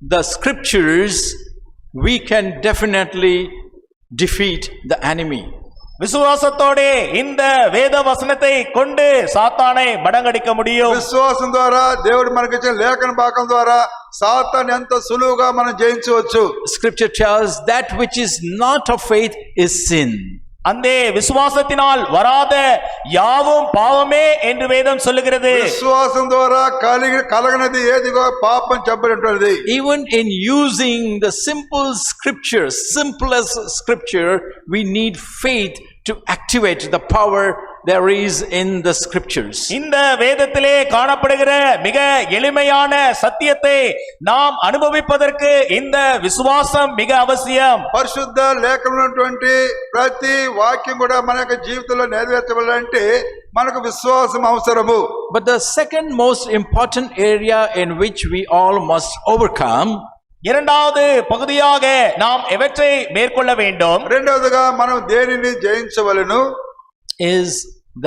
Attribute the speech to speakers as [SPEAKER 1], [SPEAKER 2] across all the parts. [SPEAKER 1] the scriptures, we can definitely defeat the enemy.
[SPEAKER 2] విశ్వాసతోడే இந்த వేద వసనத்தை கொண்டு సాతానే మడంగడిక ముడియం
[SPEAKER 3] విశ్వాసం ద్వారా దేవుడు మనకిచ్చిన లేఖన భాగం ద్వారా సాతాన్ని ఎంత సులువుగా మనం జయించవచ్చు
[SPEAKER 1] Scripture tells that which is not of faith is sin.
[SPEAKER 2] அந்தே விசுவாசத்தினால் வராத யாவும் பாவமே என்று வேதம் சொல்லுகிறது
[SPEAKER 3] విశ్వాసం ద్వారా కలిగి కలగనది ఏదిగో పాపం చెప్పబడినటువంటిది
[SPEAKER 1] Even in using the simple scripture, simplest scripture, we need faith to activate the power there is in the scriptures.
[SPEAKER 2] இந்த வேதத்திலே காணப்படுகிற மிக எளிமையான சத்தியத்தை நாம் அனுபவிப்பதற்கு இந்த விசுவாசம் மிக அவசியம்
[SPEAKER 3] పరిశుద్ధ లేఖనటువంటి ప్రతి వాక్యం కూడా మన యొక్క జీవితంలో నెరవేర్చబడాలంటే మనకు విశ్వాసం అవసరము
[SPEAKER 1] But the second most important area in which we all must overcome
[SPEAKER 2] இரண்டாவது பகுதியாக நாம் எவற்றை மேற்கொள்ள வேண்டும்
[SPEAKER 3] రెండవదిగా మనం దేనిని జయించవలను
[SPEAKER 1] is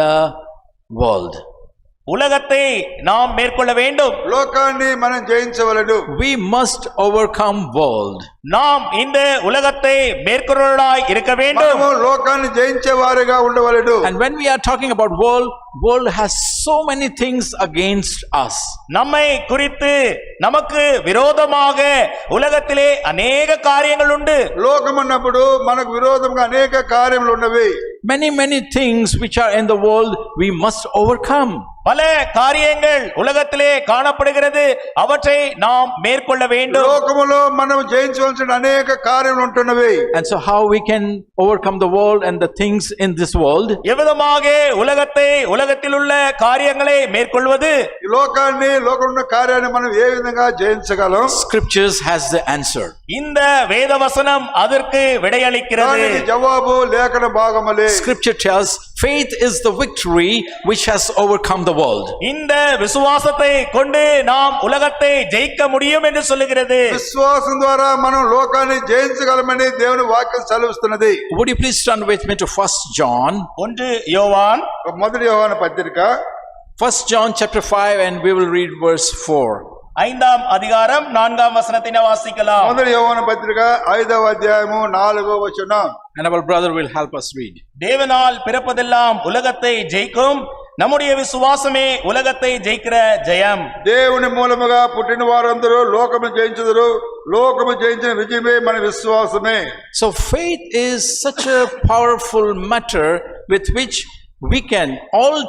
[SPEAKER 1] the world.
[SPEAKER 2] உலகத்தை நாம் மேற்கொள்ள வேண்டும்
[SPEAKER 3] లోకాన్ని మనం జయించవలను
[SPEAKER 1] We must overcome world.
[SPEAKER 2] நாம் இந்த உலகத்தை மேற்கொள்ளலாய் இருக்க வேண்டும்
[SPEAKER 3] మనము లోకాన్ని జయించే వారిగా ఉండవలను
[SPEAKER 1] And when we are talking about world, world has so many things against us.
[SPEAKER 2] நம்மை குறித்து நமக்கு விரோதமாக உலகத்திலே அநேக காரியங்கள் உண்டு
[SPEAKER 3] లోకం అన్నప్పుడు మనకు విరోధంగా అనేక కార్యములు ఉన్నవి
[SPEAKER 1] Many, many things which are in the world we must overcome.
[SPEAKER 2] பல காரியங்கள் உலகத்திலே காணப்படுகிறது அவற்றை நாம் மேற்கொள்ள வேண்டும்
[SPEAKER 3] లోకములో మనం జయించవలసిన అనేక కార్యములు ఉంటున్నవి
[SPEAKER 1] And so how we can overcome the world and the things in this world?
[SPEAKER 2] எவ்விதமாக உலகத்தை உலகத்தில் உள்ள காரியங்களை மேற்கொள்வது
[SPEAKER 3] ఈ లోకాన్ని లోకంలో ఉన్న కార్యాన్ని మనం ఏ విధంగా జయించగలం
[SPEAKER 1] Scriptures has the answer.
[SPEAKER 2] இந்த வேதவசனம் அதற்கு விடையளிக்கிறது
[SPEAKER 3] దానికి జవాబు లేఖన భాగములే
[SPEAKER 1] Scripture tells faith is the victory which has overcome the world.
[SPEAKER 2] இந்த விசுவாசத்தை கொண்டு நாம் உலகத்தை ஜெயிக்க முடியும் என்று சொல்லுகிறது
[SPEAKER 3] విశ్వాసం ద్వారా మనం లోకాన్ని జయించగలమని దేవుని వాక్యం సెలవిస్తున్నది
[SPEAKER 1] Would you please turn with me to 1 John?
[SPEAKER 2] ஒன்று யோவான்
[SPEAKER 3] మొదటి యోహాను పత్రిక
[SPEAKER 1] 1 John chapter 5 and we will read verse 4.
[SPEAKER 2] ஐந்தாம் அதிகாரம் நான்காம் வசனத்தினை வாசிக்கலாம்
[SPEAKER 3] మొదటి యోహాను పత్రిక ఐదవ అధ్యాయము నాలుగవ వచనం
[SPEAKER 1] And our brother will help us read.
[SPEAKER 2] தேவனால் பிறப்பதெல்லாம் உலகத்தை ஜெயிக்கும் நம்முடைய விசுவாசமே உலகத்தை ஜெயிக்கிற ஜெயம்
[SPEAKER 3] దేవుని మూలముగా పుట్టిన వారందరూ లోకము జయించుదురు లోకము జయించిన విజయమే మన విశ్వాసమే
[SPEAKER 1] So faith is such a powerful matter with which we can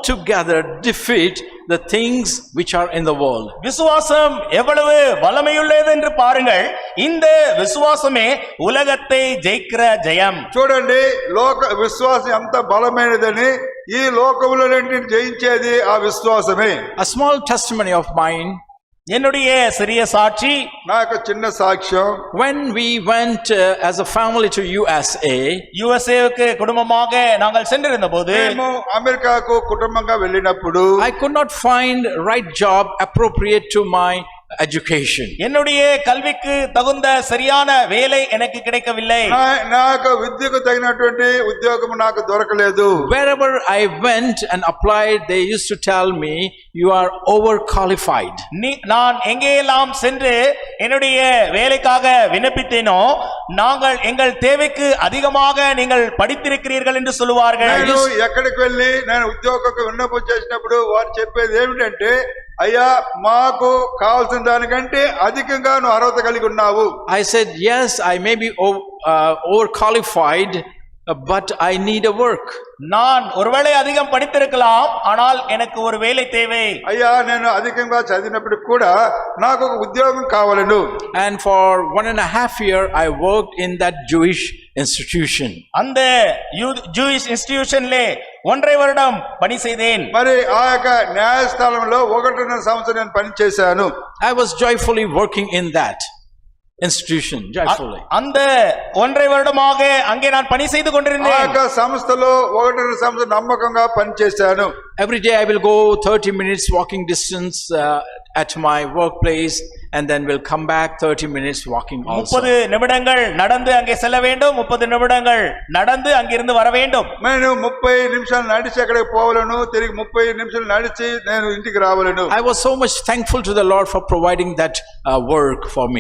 [SPEAKER 1] altogether defeat the things which are in the world.
[SPEAKER 2] விசுவாசம் எவ்வளவு வல்லமையுள்ளது என்று பாருங்கள் இந்த விசுவாசமே உலகத்தை ஜெயிக்கிற ஜெயம்
[SPEAKER 3] చూడండి లోక విశ్వాసం ఎంత బలమైనదని ఈ లోకములన్నింటిని జయించేది ఆ విశ్వాసమే
[SPEAKER 1] A small testimony of mine
[SPEAKER 2] என்னுடைய சிறிய சாட்சி
[SPEAKER 3] నా యొక్క చిన్న సాక్ష్యం
[SPEAKER 1] when we went uh, as a family to USA,
[SPEAKER 2] யுஎஸ்ஏவுக்கு குடும்பமாக நாங்கள் சென்றிருந்த போது
[SPEAKER 3] మేము అమెరికాకు కుటుంబంగా వెళ్ళినప్పుడు
[SPEAKER 1] I could not find right job appropriate to my education.
[SPEAKER 2] என்னுடைய கல்விக்கு தகுந்த சரியான வேலை எனக்கு கிடைக்கவில்லை
[SPEAKER 3] నా- నా యొక్క విద్యకు తగినటువంటి ఉద్యోగం నాకు దొరకలేదు
[SPEAKER 1] Wherever I went and applied, they used to tell me, you are overqualified.
[SPEAKER 2] நீ- நான் எங்கேயெல்லாம் சென்று என்னுடைய வேலைக்காக விண்ணப்பித்தேனோ நாங்கள் எங்கள் தேவைக்கு அதிகமாக நீங்கள் படித்திருக்கிறீர்கள் என்று சொல்லுவார்கள்
[SPEAKER 3] నేను ఎక్కడికి వెళ్ళి నేను ఉద్యోగకు విన్నపం చేసినప్పుడు వారు చెప్పేది ఏమిటంటే అయ్యా మాకు కావాల్సిన దానికంటే అధికంగా నువ్వు అర్హత కలిగి ఉన్నావు
[SPEAKER 1] I said, yes, I may be o- uh, overqualified, uh, but I need a work.
[SPEAKER 2] நான் ஒருவேளை அதிகம் படித்திருக்கலாம் ஆனால் எனக்கு ஒரு வேலை தேவை
[SPEAKER 3] అయ్యా నేను అధికంగా చదివినప్పటికి కూడా నాకు ఒక ఉద్యోగం కావాలను
[SPEAKER 1] And for one and a half year, I worked in that Jewish institution.
[SPEAKER 2] அந்த ஜூயிஷ் இன்ஸ்டிடியூஷன்லே ஒன்றை வருடம் பணி செய்தேன்
[SPEAKER 3] మరి ఆ యొక్క న్యాయస్థానంలో ఒకటిన్నర సంవత్సరం నేను పనిచేశాను
[SPEAKER 1] I was joyfully working in that institution, joyfully.
[SPEAKER 2] அந்த ஒன்றை வருடமாக அங்கே நான் பணி செய்து
[SPEAKER 3] ఆ
[SPEAKER 2] கொண்டிருந்தேன்
[SPEAKER 3] యొక్క సంస్థలో ఒకటిన్నర సంవత్సరం నమ్మకంగా పనిచేశాను
[SPEAKER 1] Every day I will go 30 minutes walking distance uh, at my workplace and then will come back 30 minutes walking also.
[SPEAKER 2] முப்பது நிமிடங்கள் நடந்து அங்கே செல்ல வேண்டும் முப்பது நிமிடங்கள் நடந்து அங்கிருந்து வர வேண்டும்
[SPEAKER 3] నేను ముప్పై నిమిషాలు నడిచి అక్కడికి పోవలను తిరిగి ముప్పై నిమిషాలు నడిచి నేను ఇంటికి రావలను
[SPEAKER 1] I was so much thankful to the Lord for providing that uh, work for me.